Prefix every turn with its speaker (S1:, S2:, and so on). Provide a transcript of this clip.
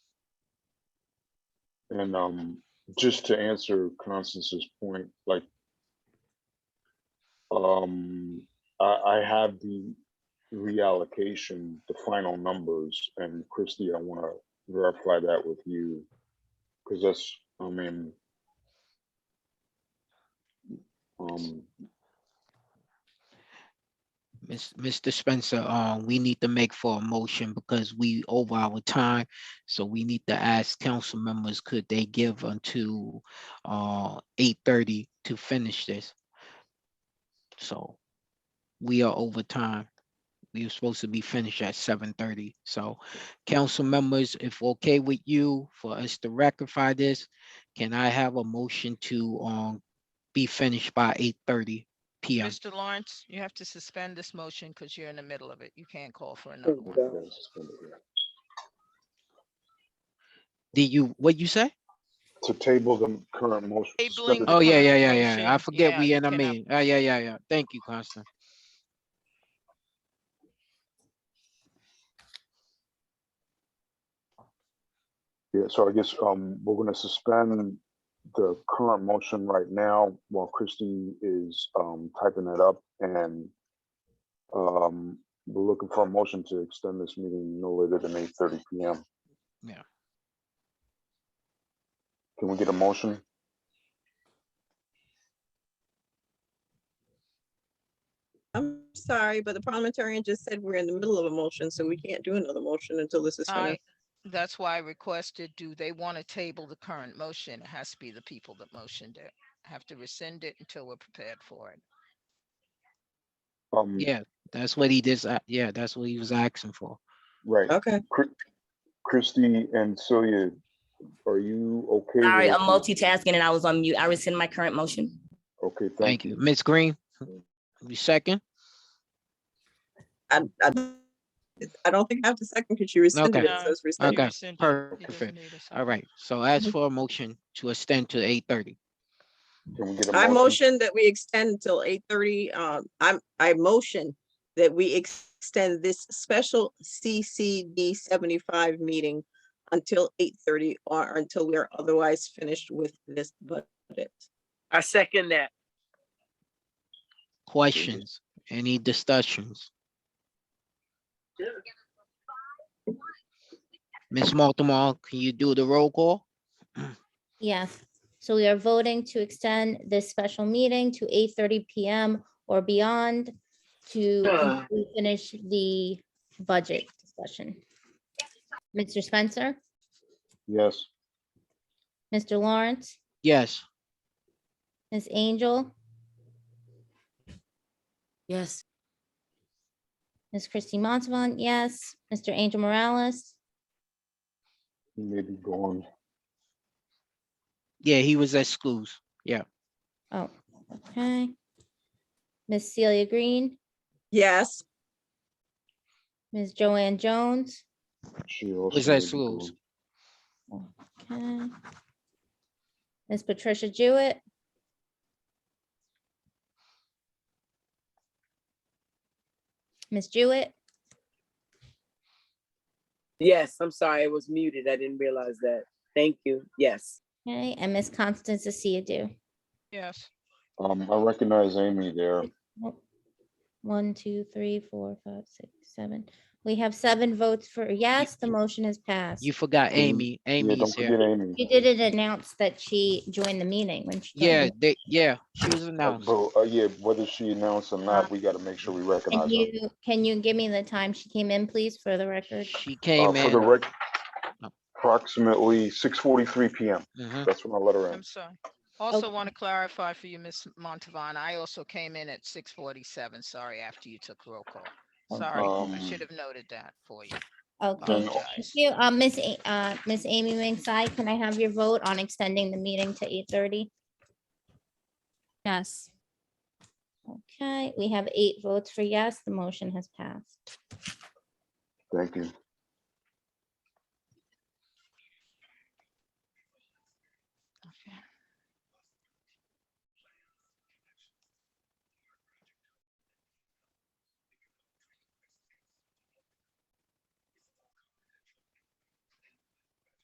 S1: And um, just to answer Constance's point, like, um, I, I have the reallocation, the final numbers, and Christie, I want to verify that with you. Because that's, I mean, um,
S2: Miss, Mr. Spencer, uh, we need to make for a motion because we over our time. So we need to ask council members, could they give until, uh, eight thirty to finish this? So we are over time. We were supposed to be finished at seven thirty. So council members, if okay with you for us to rectify this, can I have a motion to, um, be finished by eight thirty PM?
S3: Mr. Lawrence, you have to suspend this motion because you're in the middle of it. You can't call for another
S1: what
S3: one.
S1: you guys is gonna do.
S2: Did you, what you say?
S1: to table the current motion.
S3: Tabling the
S2: Oh, yeah,
S3: current
S2: yeah, yeah, yeah. I
S3: motion,
S2: forget
S3: yeah,
S2: we
S3: you
S2: in a
S3: cannot-
S2: meeting. Oh, yeah, yeah, yeah. Thank you, Constant.
S1: Yeah, so I guess um we're gonna suspend the current motion right now while Christie is um typing that up and um we're looking for a motion to extend this meeting no later than eight thirty P M.
S2: Yeah.
S1: Can we get a motion?
S4: I'm sorry, but the parliamentarian just said we're in the middle of a motion, so we can't do another motion until this is
S3: Oh, I,
S4: finished.
S3: that's why I requested, do they want to table the current motion? It has to be the people that motioned it. Have to rescind it until we're prepared for it.
S1: Um,
S2: Yeah, that's what he did. Yeah, that's what he was asking for.
S1: right,
S4: Okay,
S1: Chri- Christie and Celia, are you okay?
S5: Sorry,
S1: with-
S5: I'm multitasking and I was on mute. I rescind my current motion.
S1: Okay,
S2: Thank you. Ms. Green, you second?
S4: I, I, I don't think I have to second because you rescinded
S2: Okay.
S4: it, so it's
S3: You
S4: rescinded.
S2: Okay,
S3: rescind it. He doesn't
S2: perfect.
S3: need a second.
S2: All right, so as
S4: Mhm.
S2: for a motion to extend to eight thirty.
S1: Can we get a
S4: I motion that we extend till eight thirty, um, I'm, I motion that we extend this special CCD seventy-five meeting until eight thirty or until we are otherwise finished with this budget.
S6: I second that.
S2: Questions? Any discussions? Ms. Baltimore, can you do the roll call?
S7: Yes, so we are voting to extend this special meeting to eight thirty PM or beyond to
S6: Ah.
S7: complete- finish the budget discussion. Mr. Spencer,
S1: Yes.
S7: Mr. Lawrence,
S2: Yes,
S7: Ms. Angel,
S5: Yes.
S7: Ms. Christie Montalban, yes, Mr. Angel Morales,
S1: He may be gone.
S2: yeah, he was at schools.
S7: oh, okay. Ms. Celia Green,
S4: Yes,
S7: Ms. Joanne Jones,
S1: She also
S2: Was
S1: may
S2: at
S1: be
S2: schools.
S1: gone.
S7: okay. Ms. Patricia Jewett, Ms. Jewett,
S6: Yes, I'm sorry, it was muted. I didn't realize that. Thank you. Yes.
S7: okay, and Ms. Constance Adu.
S3: Yes,
S1: Um, I recognize Amy there.
S7: Nope. One, two, three, four, five, six, seven. We have seven votes for yes, the motion is passed.
S2: You forgot
S1: Mm,
S2: Amy.
S1: Yeah,
S2: Amy's
S1: don't
S2: here.
S1: forget Amy.
S7: She didn't announce that she joined the meeting when she.
S2: Yeah,
S7: joined.
S2: they, yeah, she was
S1: Uh,
S2: announced.
S1: But, uh, yeah, whether she announced or not, we gotta make sure we
S7: Can
S1: recognize her.
S7: Uh, you, can you give me the time she came in, please, for the record?
S2: She
S1: Uh,
S2: came
S1: For the
S2: in.
S1: rec,
S2: Oh.
S1: approximately six forty-three PM.
S2: mhm.
S1: That's when I let her in.
S3: I'm sorry. Also want to clarify for you, Ms. Montavon, I also came in at six forty-seven, sorry, after you took roll call. Sorry, I
S1: Um,
S3: should have noted that for you.
S7: Okay,
S3: Um,
S1: no.
S7: thank
S3: Apologize.
S7: you. Uh, Miss, A- uh, Miss Amy Wingside, can I have your vote on extending the meeting to eight thirty?
S8: Yes.
S7: Okay, we have eight votes for yes, the motion has passed.
S1: Thank you.